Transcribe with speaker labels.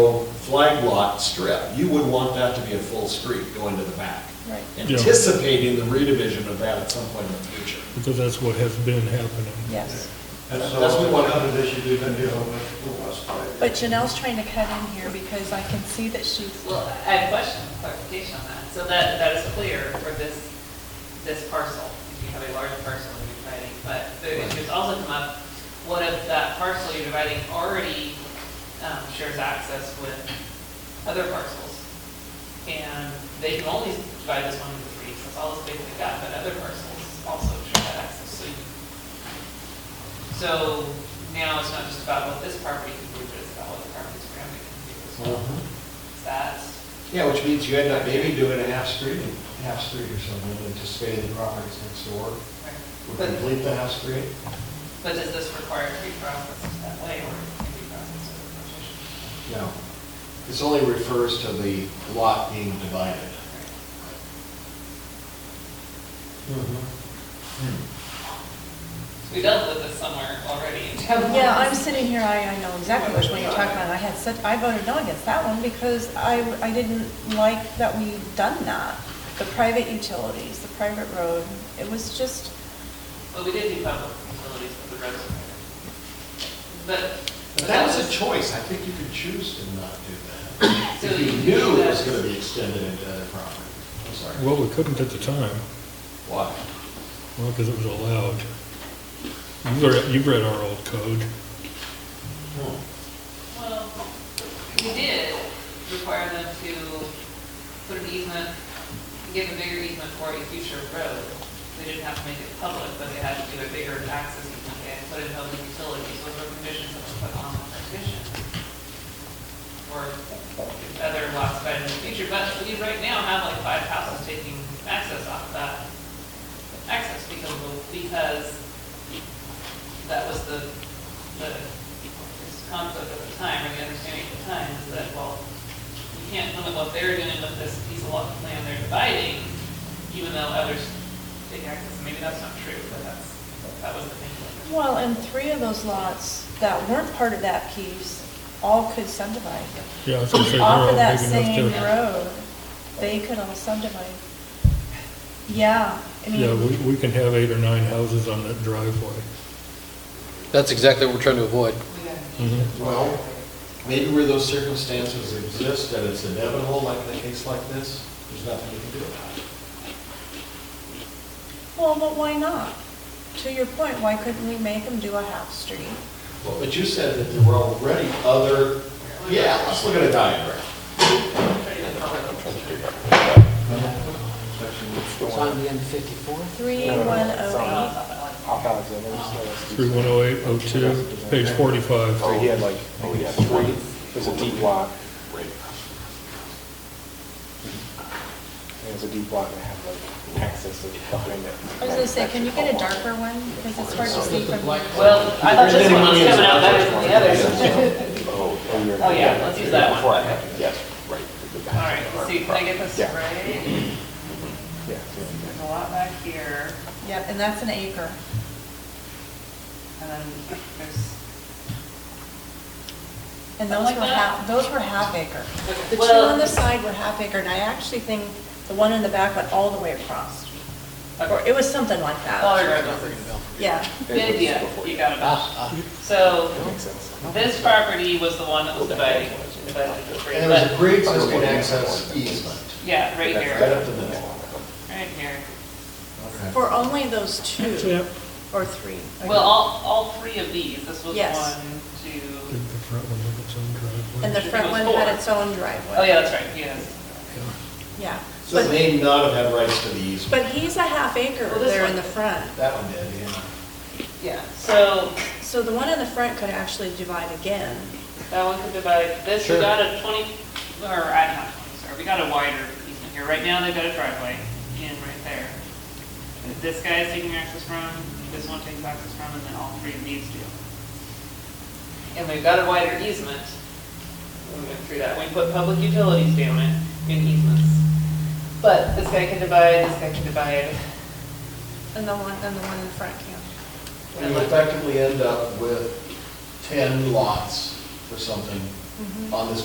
Speaker 1: flag lot strip, you would want that to be a full street going to the back.
Speaker 2: Right.
Speaker 3: Yeah.
Speaker 1: Anticipating the redivision of that at some point in the future.
Speaker 3: because that's what has been happening.
Speaker 2: Yes.
Speaker 4: That's
Speaker 1: That's what we
Speaker 4: all,
Speaker 1: want.
Speaker 4: another issue we've been dealing with for the last five years.
Speaker 2: But Janelle's trying to cut in here because I can see that she's,
Speaker 5: Well, I had a question, clarification on that. So that, that is clear for this, this parcel. If you have a large parcel and you're dividing, but the issue's also come up, what if that parcel you're dividing already um, shares access with other parcels? And they can only divide this one into three, so it's all this big like that, but other parcels also share that access, so you. So now it's not just about what this property can do, but it's about what the properties around it can do as well. Is that?
Speaker 4: Yeah, which means you end up maybe doing a half street, and half street or something, anticipating the properties next door would
Speaker 5: But,
Speaker 4: complete the half street.
Speaker 5: but does this require to be processed that way, or can it be processed as a
Speaker 4: No.
Speaker 5: partition?
Speaker 4: This only refers to the lot being divided. Mm-hmm.
Speaker 5: So we dealt with this somewhere already in town.
Speaker 2: yeah, I'm sitting here, I, I know exactly which one you're talking about. I had such, I voted no against that one because I, I didn't like that we done that. The private utilities, the private road, it was just,
Speaker 5: Well, we did do public utilities with the roads. But.
Speaker 4: But that was a choice, I think you could choose to not do that.
Speaker 5: So
Speaker 4: If you
Speaker 5: you
Speaker 4: knew it was
Speaker 5: choose-
Speaker 4: gonna be extended into other property. I'm sorry.
Speaker 3: Well, we couldn't at the time,
Speaker 4: Why?
Speaker 3: well, because it was allowed. You've read, you've read our old code.
Speaker 4: Hmm.
Speaker 5: Well, we did require them to put an easement, give a bigger easement for a future road. They didn't have to make it public, but they had to do a bigger access easement and put in public utilities, those were conditions that were put on the petition. Or other lots of in the future, but we right now have like five houses taking access off of that access because, of- because that was the, the conflict at the time, or the understanding at the time, is that, well, you can't limit what they're doing with this piece of lot of land they're dividing, even though others take access, maybe that's not true, but that's, that was the thinking.
Speaker 2: well, and three of those lots that weren't part of that piece all could subdivide.
Speaker 3: Yeah, I was gonna say, they're
Speaker 2: Off
Speaker 3: all
Speaker 2: of
Speaker 3: big
Speaker 2: that
Speaker 3: enough
Speaker 2: same
Speaker 3: to.
Speaker 2: road, they could all subdivide. Yeah, I mean.
Speaker 3: Yeah, we, we can have eight or nine houses on that driveway.
Speaker 6: That's exactly what we're trying to avoid.
Speaker 5: We got an
Speaker 3: Mhm.
Speaker 5: easement.
Speaker 4: Well, Maybe where those circumstances exist, and it's inevitable, like in a case like this, there's nothing you can do about it.
Speaker 2: Well, but why not? To your point, why couldn't we make them do a half street?
Speaker 4: Well, But you said that there were already other, yeah, let's look at a diagram.
Speaker 7: It's on the end of 54?
Speaker 2: Three, one, oh,
Speaker 8: Off Alexander, so
Speaker 3: Three one oh eight oh two, page forty-five.
Speaker 8: he had like, oh, yeah, three, it was a deep lot. It was a deep lot and it had like access to the behind it.
Speaker 2: eight. I was gonna say, can you get a darker one? Because it's hard to see from here.
Speaker 5: Well, I thought this one was coming out better than the others.
Speaker 8: Oh, you're-
Speaker 5: Oh, yeah, let's use that one.
Speaker 8: Before I had it, Yes, right.
Speaker 5: All right, let's see, can I get this
Speaker 8: Yeah.
Speaker 5: right?
Speaker 8: Yeah.
Speaker 5: There's a lot back here,
Speaker 2: Yep, and that's an acre.
Speaker 5: and then there's.
Speaker 2: And those
Speaker 5: Like
Speaker 2: were
Speaker 5: that?
Speaker 2: half, those were half acre. The two
Speaker 5: Well-
Speaker 2: on the side were half acre, and I actually think the one in the back went all the way across. Or it was something like
Speaker 5: Dollar
Speaker 2: that.
Speaker 5: General.
Speaker 2: Yeah.
Speaker 5: Good idea, you got
Speaker 8: Ah,
Speaker 5: it. So
Speaker 8: That makes sense.
Speaker 5: this property was the one that was dividing, divided into three,
Speaker 4: And there was a
Speaker 5: but,
Speaker 4: pre-existing access easement,
Speaker 5: yeah, right
Speaker 4: right
Speaker 5: here,
Speaker 4: up to the middle.
Speaker 5: right here.
Speaker 2: For only those two or three.
Speaker 5: Well, all, all three of these, this was
Speaker 2: Yes.
Speaker 5: one, two,
Speaker 3: The front one with its own driveway.
Speaker 2: And the front one had its own driveway.
Speaker 5: oh yeah, that's right, yes.
Speaker 2: Yeah.
Speaker 4: So
Speaker 2: But-
Speaker 4: it may not have had rights to the easement.
Speaker 2: But he's a half acre
Speaker 5: Well, this
Speaker 2: there in
Speaker 5: one-
Speaker 2: the front.
Speaker 4: That one did, yeah.
Speaker 5: Yeah, so
Speaker 2: So the one in the front could actually divide again.
Speaker 5: that one could divide, this, we got a twenty, or, I don't know, sorry, we got a wider easement here. Right now, they've got a driveway in right there. This guy is taking access from, this one takes access from, and then all three of these do. And we've got a wider easement. We went through that, we put public utilities down it, in easements. But this guy can divide, this guy can divide,
Speaker 2: And the one, and the one in the front can't.
Speaker 4: And you effectively end up with 10 lots or something on this